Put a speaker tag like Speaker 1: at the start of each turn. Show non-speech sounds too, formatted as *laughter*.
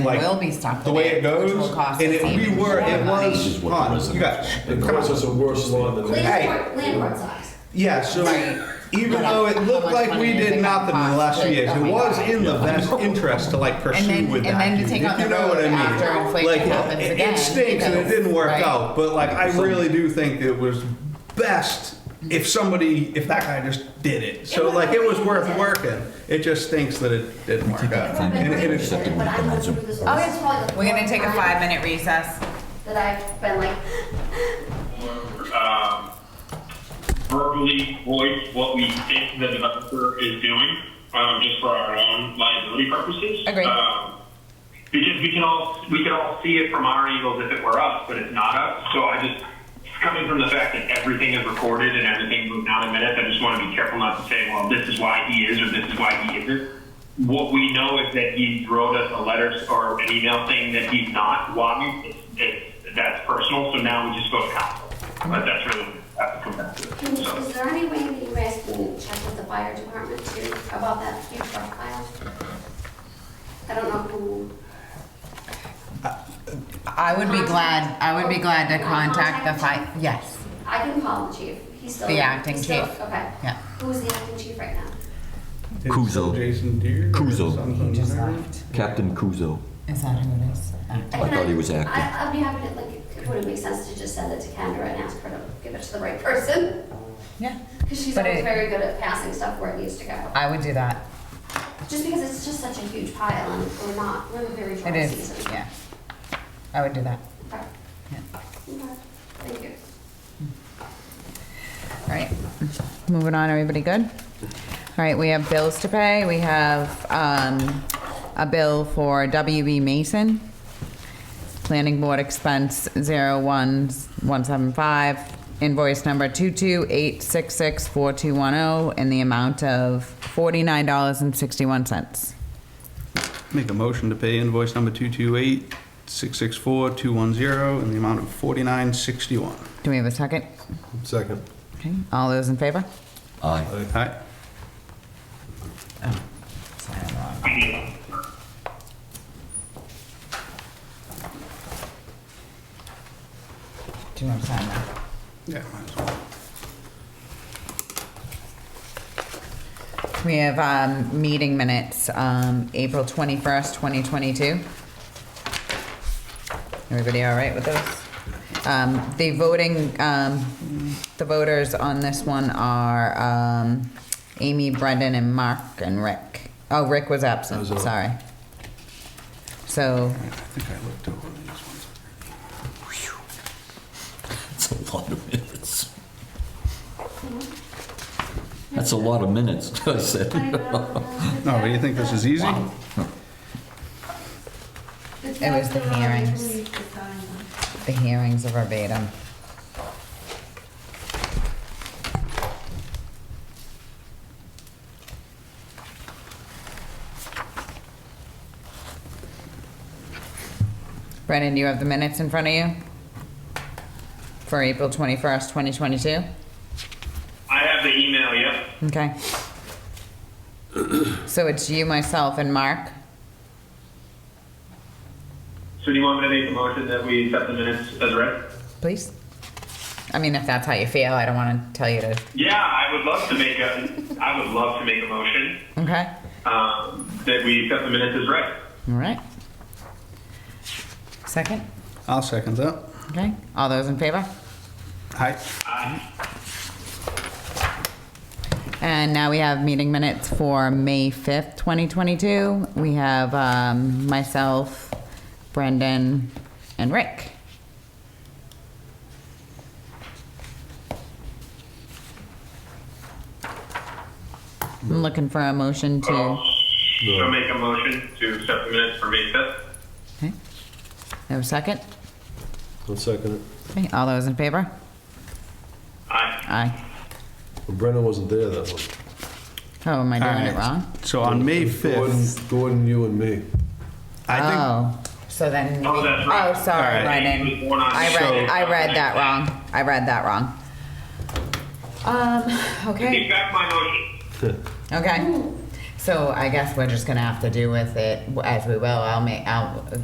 Speaker 1: Like,
Speaker 2: will be stuck
Speaker 1: the
Speaker 2: with
Speaker 1: way it
Speaker 2: which
Speaker 1: goes,
Speaker 2: will cost
Speaker 1: and
Speaker 2: us
Speaker 1: it, we
Speaker 2: even
Speaker 1: were,
Speaker 2: more
Speaker 1: it
Speaker 2: money.
Speaker 1: was,
Speaker 3: what
Speaker 1: huh,
Speaker 3: prison
Speaker 1: you guys,
Speaker 4: It
Speaker 1: come
Speaker 4: causes
Speaker 1: on.
Speaker 4: a worse law than this.
Speaker 1: Hey.
Speaker 5: Landlord, landlord sucks.
Speaker 1: Yeah, so
Speaker 2: Right.
Speaker 1: even
Speaker 2: But uh,
Speaker 1: though it
Speaker 2: how
Speaker 1: looked
Speaker 2: much
Speaker 1: like
Speaker 2: money
Speaker 1: we
Speaker 2: is it
Speaker 1: did
Speaker 2: gonna
Speaker 1: nothing in the
Speaker 2: cost
Speaker 1: last few
Speaker 2: to-
Speaker 1: years,
Speaker 2: oh
Speaker 1: it
Speaker 2: my
Speaker 1: was
Speaker 2: God.
Speaker 1: in the
Speaker 3: *laughs*
Speaker 1: best interest to like pursue
Speaker 2: then-
Speaker 1: with
Speaker 2: and
Speaker 1: that
Speaker 2: then to take
Speaker 1: dude,
Speaker 2: on
Speaker 1: if you
Speaker 2: the
Speaker 1: know what I
Speaker 2: road
Speaker 1: mean.
Speaker 2: after inflation
Speaker 1: Like,
Speaker 2: happens
Speaker 1: it-
Speaker 2: again,
Speaker 1: It stinks and it
Speaker 2: because-
Speaker 1: didn't work
Speaker 2: right.
Speaker 1: out, but like, I really do think it was best if somebody, if that guy just did it. So
Speaker 5: would've
Speaker 1: like, it
Speaker 5: been
Speaker 1: was worth
Speaker 5: worth it.
Speaker 1: working, it just stinks that it didn't work out.
Speaker 5: I've been
Speaker 1: And it- and
Speaker 5: waiting
Speaker 1: it's-
Speaker 5: for it, but I'm going through this. This is probably the
Speaker 2: We're gonna
Speaker 5: fourth
Speaker 2: take a
Speaker 5: time
Speaker 2: five minute recess.
Speaker 5: That I've been like,
Speaker 6: or um, verbally voice what we think the developer is doing, um, just for our own liability purposes.
Speaker 2: Agreed.
Speaker 6: Um, because we can all we can all see it from our angles if it were us, but it's not us. So I just it's coming from the fact that everything is recorded and everything moved down in minutes. I just want to be careful not to say, well, this is why he is or this is why he isn't. What we know is that he wrote us a letter or an email saying that he's not. Why? It's, it's, that's personal. So now we just go to council. But that's really have to come back to
Speaker 5: can
Speaker 6: it.
Speaker 5: you-
Speaker 6: So.
Speaker 5: is there any way that you guys can check with the fire department too about that few truck pile? I don't know who.
Speaker 2: I would be glad, I would be glad to contact the fi, yes,
Speaker 5: I can call the chief. He's still.
Speaker 2: The acting
Speaker 5: he's still-
Speaker 2: chief.
Speaker 5: Okay.
Speaker 2: Yeah.
Speaker 5: Who's the acting chief right now?
Speaker 3: Kuzo.
Speaker 1: Jason Deere. or
Speaker 3: Kuzo.
Speaker 1: something.
Speaker 2: he just left.
Speaker 3: Captain Kuzo.
Speaker 2: Is that who it is?
Speaker 5: I
Speaker 3: thought he was acting.
Speaker 5: I, I'd be happy to, like, it wouldn't make sense to just send it to Kendra and ask her to give it to the right person.
Speaker 2: Yeah,
Speaker 5: Because she's
Speaker 2: But
Speaker 5: always
Speaker 2: it-
Speaker 5: very good at passing stuff where it needs to go.
Speaker 2: I would do that.
Speaker 5: Just because it's just such a huge pile and we're not, we're in a very
Speaker 2: It
Speaker 5: dry
Speaker 2: is,
Speaker 5: season.
Speaker 2: yeah. I would do that.
Speaker 5: Okay.
Speaker 2: Yeah.
Speaker 5: Okay. Thank you.
Speaker 2: All right, moving on, everybody good? All right, we have bills to pay. We have um, a bill for WB Mason, Planning Board Expense 01175, invoice number 228664210 in the amount of $49.61.
Speaker 1: Make a motion to pay invoice number 228-664-210 in the amount of 4961.
Speaker 2: Do we have a second?
Speaker 4: Second.
Speaker 2: Okay, all those in favor?
Speaker 3: Aye.
Speaker 1: Aye.
Speaker 2: Do you want to sign that?
Speaker 1: Yeah, might as well.
Speaker 2: We have um, meeting minutes, um, April 21st, 2022. Everybody all right with those? Um, The voting, um, the voters on this one are um, Amy, Brendan, and Mark, and Rick. Oh, Rick was absent, sorry. So,
Speaker 1: I think I looked over these ones.
Speaker 3: That's a lot of minutes. That's a lot of minutes, *laughs* I said.
Speaker 5: I don't know.
Speaker 1: No, what do Oh, you think, this is easy?
Speaker 3: Wow.
Speaker 2: It was the hearings. the hearings are verbatim. Brennan, do you have the minutes in front of you? For April 21st, 2022?
Speaker 6: I have the email. Yep.
Speaker 2: Okay. So it's you, myself, and Mark?
Speaker 6: So do you want me to make a motion that we accept the minutes as read?
Speaker 2: Please? I mean, if that's how you feel, I don't want to tell you to,
Speaker 6: Yeah, I would love to make a. I would love to make a motion
Speaker 2: okay?
Speaker 6: um, that we accept the minutes as read.
Speaker 2: All right. Second?
Speaker 1: I'll second that.
Speaker 2: Okay, all those in favor?
Speaker 1: Aye.
Speaker 2: And now we have meeting minutes for May 5th, 2022. We have um, myself, Brendan, and Rick. I'm looking for a motion to,
Speaker 6: So make a motion to accept the minutes for May fifth.
Speaker 2: okay, have a second?
Speaker 4: I'll second it.
Speaker 2: Okay, all those in favor?
Speaker 6: Aye.
Speaker 2: Aye.
Speaker 4: Well, Brendan wasn't there that one.
Speaker 2: Oh, am I
Speaker 1: All
Speaker 2: doing it
Speaker 1: right.
Speaker 2: wrong?
Speaker 1: So on May 5th,
Speaker 4: Gordon, Gordon, you and me.
Speaker 1: I
Speaker 2: Oh, so then.
Speaker 6: Oh,
Speaker 2: we-
Speaker 6: that's right.
Speaker 2: Oh, sorry,
Speaker 1: All right.
Speaker 2: Brendan.
Speaker 6: He was born on
Speaker 2: I read,
Speaker 6: Saturday.
Speaker 2: I read that wrong. I read that wrong. Um, okay,
Speaker 6: Take back my motion.
Speaker 2: okay. So I guess we're just gonna have to do with it as we will. I'll make, I'll